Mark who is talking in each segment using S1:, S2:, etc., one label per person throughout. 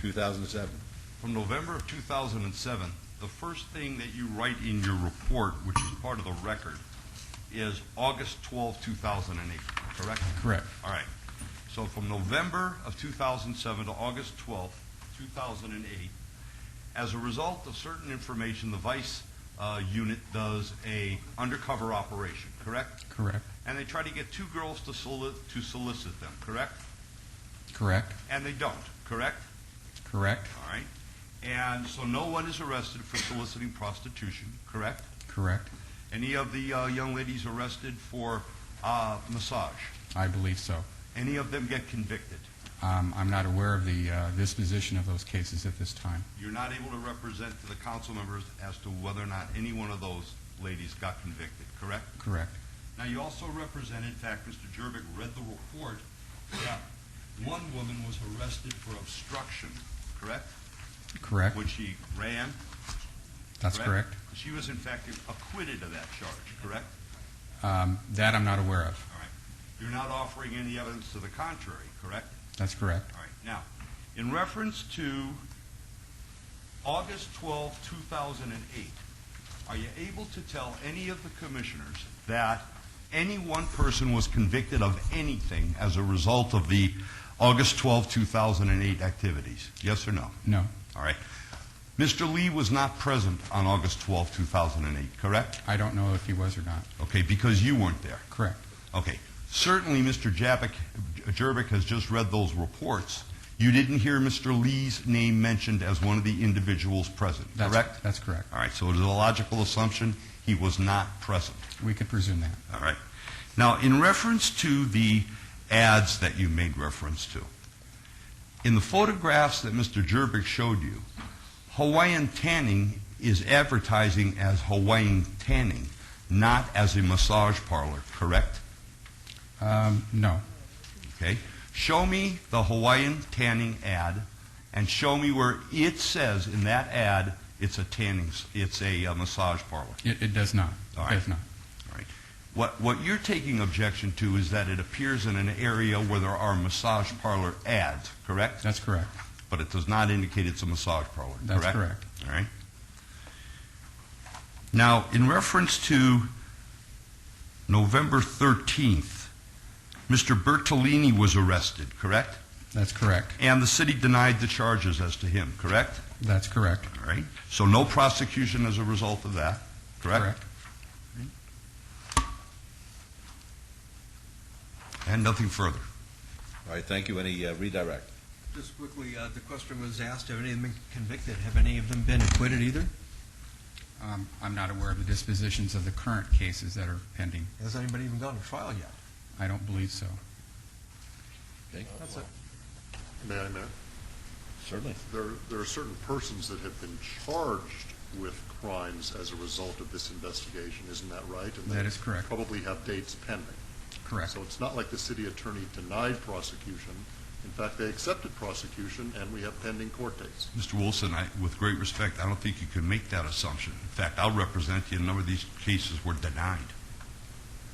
S1: 2007.
S2: From November of 2007, the first thing that you write in your report, which is part of the record, is August 12, 2008, correct?
S1: Correct.
S2: All right. So from November of 2007 to August 12, 2008, as a result of certain information, the Vice uh, Unit does a undercover operation, correct?
S1: Correct.
S2: And they try to get two girls to soli- to solicit them, correct?
S1: Correct.
S2: And they don't, correct?
S1: Correct.
S2: All right. And so no one is arrested for soliciting prostitution, correct?
S1: Correct.
S2: Any of the uh, young ladies arrested for uh, massage?
S1: I believe so.
S2: Any of them get convicted?
S1: Um, I'm not aware of the uh, disposition of those cases at this time.
S2: You're not able to represent to the council members as to whether or not any one of those ladies got convicted, correct?
S1: Correct.
S2: Now, you also represent, in fact, Mr. Jervik read the report, that one woman was arrested for obstruction, correct?
S1: Correct.
S2: Which she ran,
S1: That's correct.
S2: She was, in fact, acquitted of that charge, correct?
S1: Um, that I'm not aware of.
S2: All right. You're not offering any evidence to the contrary, correct?
S1: That's correct.
S2: All right. Now, in reference to August 12, 2008, are you able to tell any of the commissioners that any one person was convicted of anything as a result of the August 12, 2008 activities? Yes or no?
S1: No,
S2: All right. Mr. Lee was not present on August 12, 2008, correct?
S1: I don't know if he was or not.
S2: Okay, because you weren't there.
S1: Correct.
S2: Okay. Certainly, Mr. Jabic, Jervik has just read those reports. You didn't hear Mr. Lee's name mentioned as one of the individuals present,
S1: That's,
S2: correct?
S1: That's correct.
S2: All right, so it is a logical assumption he was not present.
S1: We could presume that.
S2: All right. Now, in reference to the ads that you made reference to, in the photographs that Mr. Jervik showed you, Hawaiian tanning is advertising as Hawaiian tanning, not as a massage parlor, correct?
S1: Um, no,
S2: Okay? Show me the Hawaiian tanning ad and show me where it says in that ad it's a tanning, s- it's a uh, massage parlor.
S1: it, it does not.
S2: All
S1: It
S2: right.
S1: does not.
S2: What, what you're taking objection to is that it appears in an area where there are massage parlor ads, correct?
S1: That's correct.
S2: But it does not indicate it's a massage parlor,
S1: That's
S2: correct?
S1: correct.
S2: All right. Now, in reference to November 13th, Mr. Bertolini was arrested, correct?
S1: That's correct.
S2: And the city denied the charges as to him, correct?
S1: That's correct.
S2: All right. So no prosecution as a result of that, correct?
S1: Correct.
S2: And nothing further.
S3: All right, thank you. Any uh, redirect?
S4: Just quickly, uh, the question was asked, have any of them been convicted? Have any of them been acquitted either?
S1: Um, I'm not aware of the dispositions of the current cases that are pending.
S4: Has anybody even gone to trial yet?
S1: I don't believe so.
S3: Okay,
S4: That's it.
S5: May I, Matt?
S3: certainly.
S5: uh, There, there are certain persons that have been charged with crimes as a result of this investigation, isn't that right? And they
S1: That is correct.
S5: Probably have dates pending.
S1: Correct.
S5: So it's not like the city attorney denied prosecution. In fact, they accepted prosecution, and we have pending court dates.
S2: Mr. Wilson, I, with great respect, I don't think you can make that assumption. In fact, I'll represent you. A number of these cases were denied.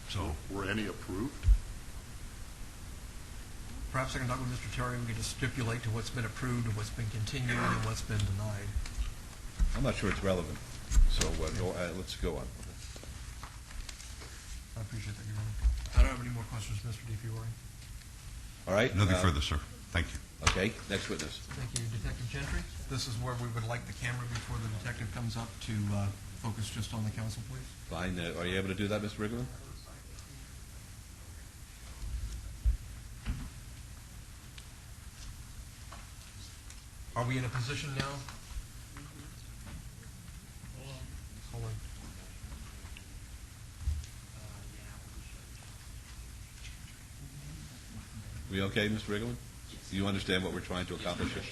S2: So,
S5: Were any approved?
S4: Perhaps I can talk with Mr. Terry, and we can just stipulate to what's been approved, and what's been continued, and what's been denied.
S3: I'm not sure it's relevant, so uh, go- uh, let's go on.
S4: I appreciate that, Your Honor. I don't have any more questions, Mr. DiFiore.
S3: All right?
S2: nothing
S3: uh,
S2: further, sir. Thank you.
S3: Okay, next witness.
S4: Thank you, Detective Gentry. This is where we would like the camera before the detective comes up to uh, focus just on the council, please.
S3: Fine, uh, are you able to do that, Mr. Riggin?
S4: Are we in a position now? Hold on.
S3: We okay, Mr. Riggin? Do you understand what we're trying to accomplish here?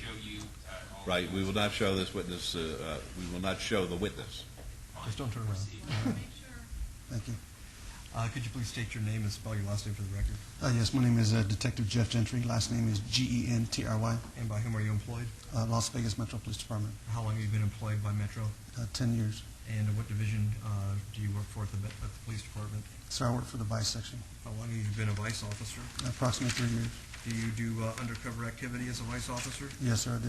S3: Right, we will not show this witness, uh, uh, we will not show the witness.
S4: Just don't turn around. Thank you. Uh, Could you please state your name and spell your last name for the record?
S6: Uh, yes, my name is uh, Detective Jeff Gentry. Last name is G E N T R Y,
S4: And by whom are you employed?
S6: uh, Las Vegas Metro Police Department.
S4: How long have you been employed by Metro?
S6: Uh, 10 years.
S4: And what division uh, do you work for at the at the police department?
S6: So I work for the vice section,
S4: How long have you been a vice officer?
S6: approximately three years.
S4: Do you do uh, undercover activity as a vice officer?
S6: Yes, sir, I do.